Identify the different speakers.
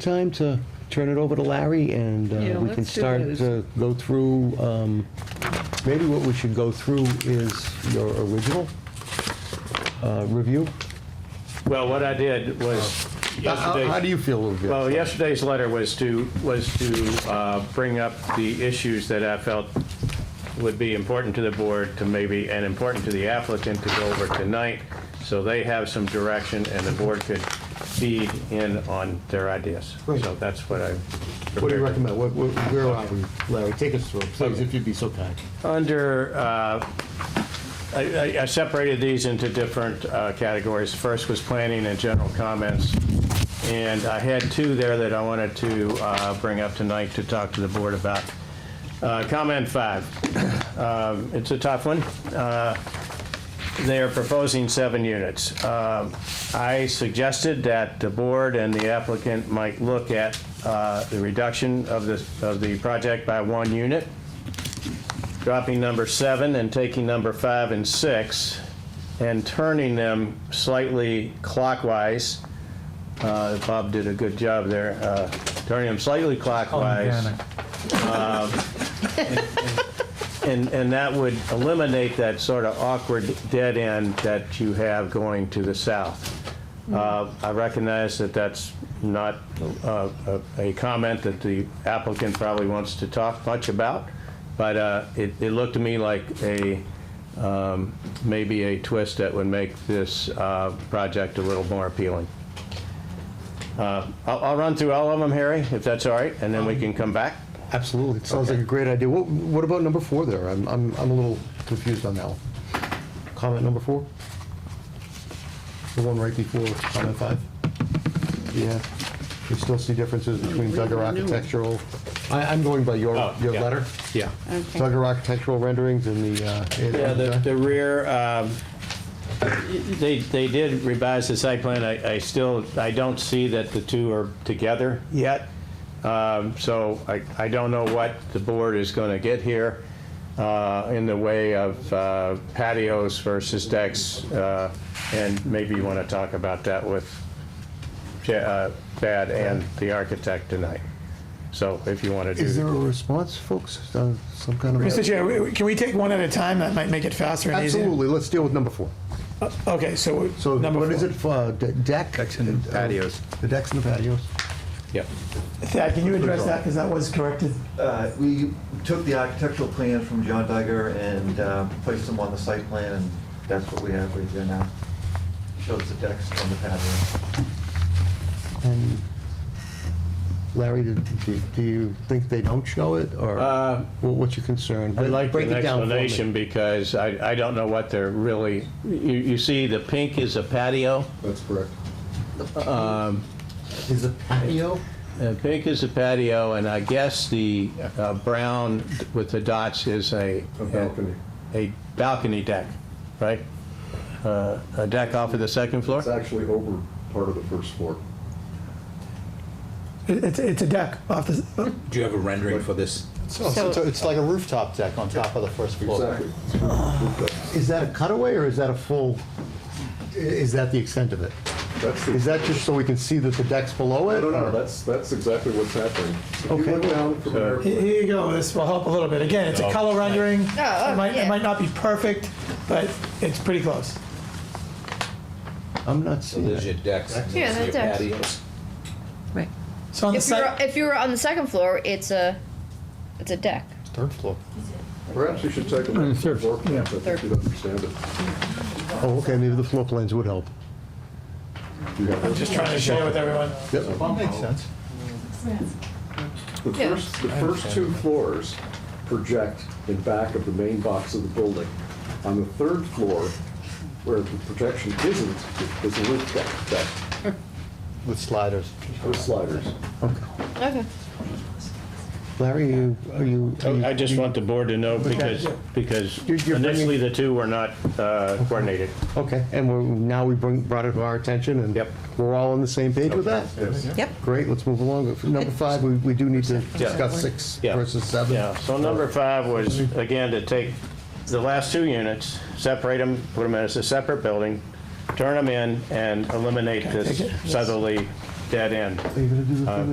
Speaker 1: time to turn it over to Larry, and
Speaker 2: Yeah,
Speaker 1: uh, we can
Speaker 2: let's do
Speaker 1: start
Speaker 2: those.
Speaker 1: to go through, um, maybe what we should go through is your original uh, review.
Speaker 3: Well, what I did was
Speaker 1: How- How how do
Speaker 3: yesterday,
Speaker 1: you feel with
Speaker 3: well,
Speaker 1: this?
Speaker 3: yesterday's letter was to, was to uh, bring up the issues that I felt would be important to the board to maybe, and important to the applicant to go over tonight, so they have some direction and the board could feed in on their ideas.
Speaker 4: Great.
Speaker 3: So that's what I
Speaker 4: What do you
Speaker 3: prepared.
Speaker 4: recommend? What- what- Where are we, Larry? Take us through, please, if you'd be so kind.
Speaker 3: Under, uh, I I- I separated these into different uh, categories. First was planning and general comments, and I had two there that I wanted to uh, bring up tonight to talk to the board about. Uh, Comment five, Um, it's a tough one. Uh, They are proposing seven units. Um, I suggested that the board and the applicant might look at uh, the reduction of the, of the project by one unit dropping number seven and taking number five and six and turning them slightly clockwise. Uh, Bob did a good job there, uh, turning them slightly clockwise. Um, And, and that would eliminate that sort of awkward dead end that you have going to the south. Uh, I recognize that that's not uh, a a comment that the applicant probably wants to talk much about, but uh, it it looked to me like a, um, maybe a twist that would make this uh, project a little more appealing. Uh, I'll I'll run through all of them, Harry, if that's all right, and then we can come back.
Speaker 1: Absolutely, it sounds like a great idea. What what about number four there? I'm I'm I'm a little confused on that one. Comment number four? The one right before comment five? Yeah, we still see differences between Duggar architectural, I- I'm going by your
Speaker 3: Oh,
Speaker 1: your
Speaker 3: yeah.
Speaker 1: letter.
Speaker 3: Yeah.
Speaker 2: Okay.
Speaker 1: Duggar architectural renderings and the... uh, and-
Speaker 3: Yeah, the, the rear, um, they, they did revise the site plan. I, I still, I don't see that the two are together yet. Um, So I, I don't know what the board is going to get here uh, in the way of uh, patios versus decks. uh, And maybe you want to talk about that with Ja- uh, Thad and the architect tonight. So if you want to do.
Speaker 1: Is there a response, folks? Uh, Some kind of...
Speaker 5: Mr. Chair, w- can we take one at a time? That might make it faster and easier. Uh,
Speaker 1: Absolutely, let's deal with number four.
Speaker 5: Okay, so
Speaker 1: So
Speaker 5: number
Speaker 1: what is
Speaker 5: four.
Speaker 1: it, for de- deck? Decks and patios. The decks and the patios.
Speaker 3: Yeah.
Speaker 5: Thad, can you address that, because that was corrected?
Speaker 6: Uh, We took the architectural plans from John Duggar and uh, placed them on the site plan, and that's what we have right there now. Shows the decks on the patio.
Speaker 1: And Larry, did- do do you think they don't show it, or
Speaker 3: Uh,
Speaker 1: wha- what's your concern?
Speaker 3: I'd like
Speaker 1: Break
Speaker 3: an
Speaker 1: it down for me.
Speaker 3: explanation because I, I don't know what they're really, you, you see the pink is a patio.
Speaker 1: That's correct.
Speaker 3: Um,
Speaker 1: Is the patio,
Speaker 3: Uh, Pink is a patio and I guess the uh, brown with the dots is a. A balcony. A balcony deck, right? Uh, A deck off of the second floor?
Speaker 7: It's actually over part of the first floor.
Speaker 5: It- It's, it's a deck off the, oh, s-
Speaker 8: Do you have a rendering for this?
Speaker 2: So- so
Speaker 4: It's like a rooftop deck on top of the first floor.
Speaker 7: Exactly.
Speaker 1: is that a cutaway, or is that a full, i- is that the extent of it?
Speaker 7: That's
Speaker 1: Is
Speaker 7: the,
Speaker 1: that just so we can see that the deck's below it?
Speaker 7: no, no, no,
Speaker 1: or-
Speaker 7: that's, that's exactly what's happening. If you
Speaker 1: Okay.
Speaker 7: look down from there,
Speaker 5: here here you go, this will help a little bit. Again, it's a color rendering. It
Speaker 2: oh,
Speaker 5: might,
Speaker 2: yeah.
Speaker 5: it might not be perfect, but it's pretty close.
Speaker 1: I'm not seeing
Speaker 8: There's
Speaker 1: it.
Speaker 8: your decks. and
Speaker 9: Yeah,
Speaker 8: there's
Speaker 9: that's
Speaker 8: your patios.
Speaker 5: So on the
Speaker 9: If you're
Speaker 5: site,
Speaker 9: if you're on the second floor, it's a it's a deck.
Speaker 1: Third floor.
Speaker 7: perhaps you should take a look at the floor plan, I think you'd understand it.
Speaker 1: Oh, okay, maybe the floor plans would help.
Speaker 7: You have
Speaker 5: I'm
Speaker 7: a-
Speaker 5: just trying to share with everyone.
Speaker 4: That makes sense.
Speaker 7: The
Speaker 9: Yeah.
Speaker 7: first, the first two floors project in back of the main box of the building. On the third floor, where the projection isn't, is a roof deck, deck
Speaker 1: With sliders.
Speaker 7: with sliders.
Speaker 9: Okay.
Speaker 1: Larry, you, are you? are you-
Speaker 3: Oh, I just want the board to know because, because
Speaker 1: You're- you're bringing-
Speaker 3: initially the two were not uh, coordinated.
Speaker 1: Okay, and we're, now we bring, brought it to our attention, and
Speaker 3: Yep.
Speaker 1: we're all on the same page with that?
Speaker 2: Yep.
Speaker 1: Great, let's move along. Number five, we, we do need to discuss six
Speaker 3: Yeah.
Speaker 1: versus seven.
Speaker 3: Yeah, so number five was, again, to take the last two units, separate them, put them as a separate building, turn them in, and eliminate this southerly dead end.
Speaker 1: Are you gonna do the
Speaker 3: Uh,
Speaker 1: thing?